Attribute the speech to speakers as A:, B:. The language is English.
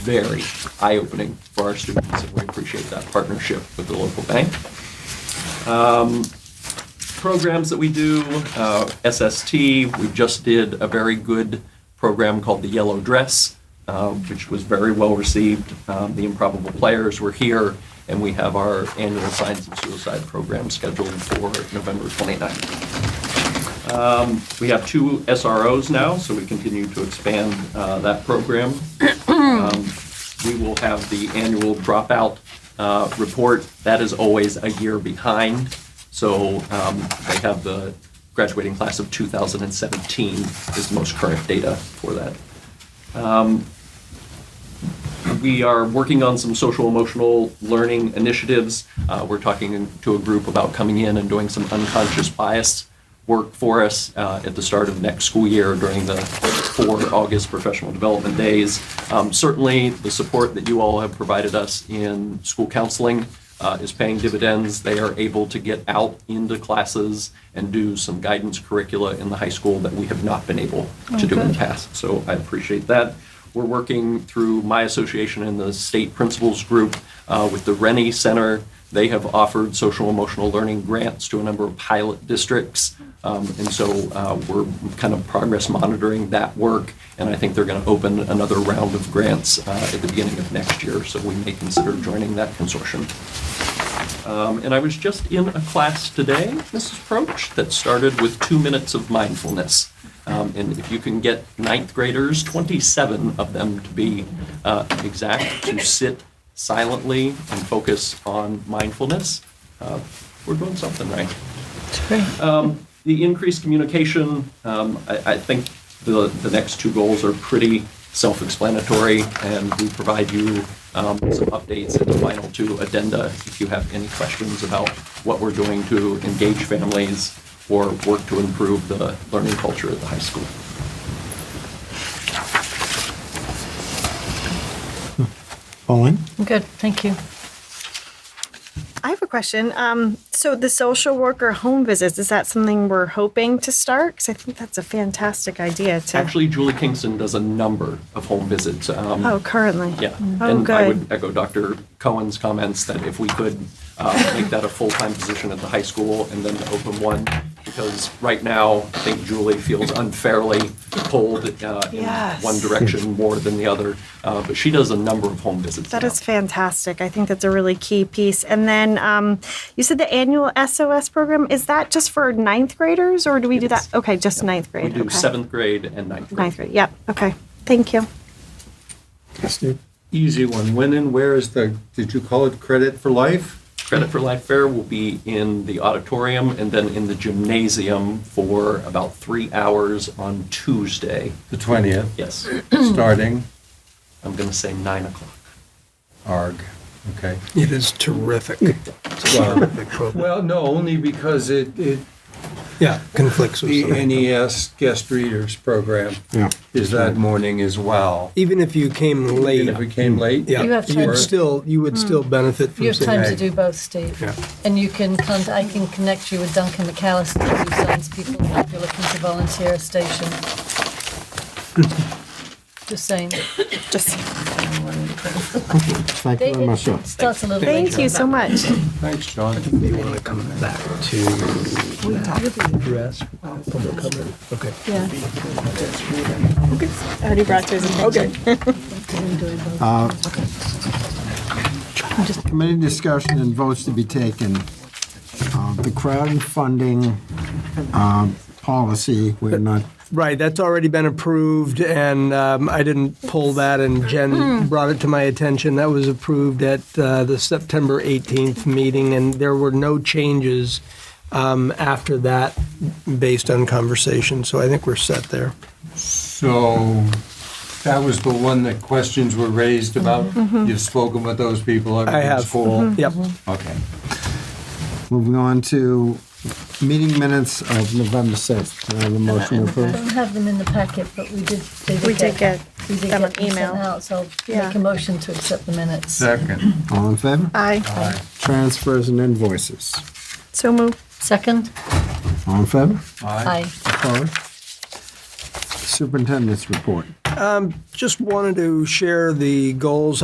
A: very eye-opening for our students, and we appreciate that partnership with the local bank. Um, Programs that we do, uh, SST, we just did a very good program called the Yellow Dress, uh, which was very well-received. Um, The Improbable Players were here, and we have our annual Signs of Suicide program scheduled for November 29th. Um, We have two SROs now, so we continue to expand uh, that program. Um, We will have the annual dropout uh, report. That is always a year behind. So um, they have the graduating class of 2017 is the most current data for that. We are working on some social emotional learning initiatives. Uh, we're talking to a group about coming in and doing some unconscious bias work for us uh, at the start of next school year during the four August professional development days. Um, certainly, the support that you all have provided us in school counseling uh, is paying dividends. They are able to get out into classes and do some guidance curricula in the high school that we have not been able to do in the past. So I appreciate that. We're working through my association and the state principals group uh, with the Rennie Center. They have offered social emotional learning grants to a number of pilot districts. Um, And so uh, we're kind of progress monitoring that work. And I think they're going to open another round of grants uh, at the beginning of next year. So we may consider joining that consortium. Um, And I was just in a class today, Mrs. Proch, that started with two minutes of mindfulness. Um, And if you can get ninth graders, 27 of them to be uh, exact, to sit silently and focus on mindfulness, uh, we're doing something right. Um, The increased communication, um, I I think the the next two goals are pretty self-explanatory, and we provide you um, some updates in the final two addenda if you have any questions about what we're doing to engage families or work to improve the learning culture at the high school.
B: Pauline?
C: Good, thank you.
D: I have a question. Um, so the social worker home visits, is that something we're hoping to start? Because I think that's a fantastic idea to.
A: Actually, Julie Kingston does a number of home visits. um,
D: Oh, currently.
A: Yeah,
D: Oh,
A: and I
D: good.
A: would echo Dr. Cohen's comments that if we could uh, make that a full-time position at the high school and then the open one, because right now, I think Julie feels unfairly pulled uh, in
D: Yes.
A: one direction more than the other, Uh, but she does a number of home visits
D: That
A: now.
D: is fantastic. I think that's a really key piece. And then um, you said the annual SOS program, is that just for ninth graders or do we do that?
A: Yes.
D: Okay, just ninth
A: We
D: grade.
A: do
D: okay.
A: seventh grade and ninth grade.
D: Ninth grade, yep. Okay, thank you.
B: Steve?
E: Easy one. When and where is the, did you call it credit for life?
A: Credit for Life Fair will be in the auditorium and then in the gymnasium for about three hours on Tuesday.
E: The 20th,
A: Yes,
E: starting
A: I'm going to say nine o'clock.
E: ARG. Okay.
F: It is terrific. It's a terrific program.
E: Well, no, only because it, it,
F: Yeah, conflicts with
E: the uh,
F: something.
E: NES guest readers program
B: Yeah.
E: is that morning as well.
F: Even if you came late,
E: If we came late.
F: yeah,
C: You have
F: you
C: time. Hmm.
F: would still, you would still benefit
C: You
F: from
C: have time
F: saying,
C: to do both, Steve.
F: Yeah.
C: And you can, con- I can connect you with Duncan McAllister, who signs people up if you're looking to volunteer a station. Just saying.
D: Just,
B: Thank you
C: They-
B: very
C: It
B: much, sir.
C: starts a little later.
D: thank you so much.
E: Thanks, John.
F: you want to come back to that address, public comment. Okay.
C: Yeah.
D: Already brought to his attention.
B: Committee discussion and votes to be taken. Uh, The crowd and funding um, policy, we're not,
F: Right, that's already been approved, and um, I didn't pull that, and
C: Hmm.
F: Jen brought it to my attention. That was approved at uh, the September 18th meeting, and there were no changes um, after that based on conversation, so I think we're set there.
E: So that was the one that questions were raised
C: Mm-hmm.
E: about. You've spoken with those people.
F: I have.
E: everything's
C: Hmm.
E: cool.
F: Yep.
C: Mm-hmm.
E: Okay.
B: moving on to meeting minutes of November 6th. Can I have a motion to
C: I
B: approve?
C: don't have them in the packet, but we did, they did
D: We did get
C: we did
D: them
C: get
D: an
C: sent
D: email.
C: out, So I'll
D: Yeah.
C: make a motion to accept the minutes.
E: Second.
B: All in favor?
D: Aye,
B: Transfers and invoices.
D: so move.
C: Second?
B: All in favor?
E: Aye.
C: Aye.
B: Opposed? Superintendent's report.
F: Just wanted to share the goals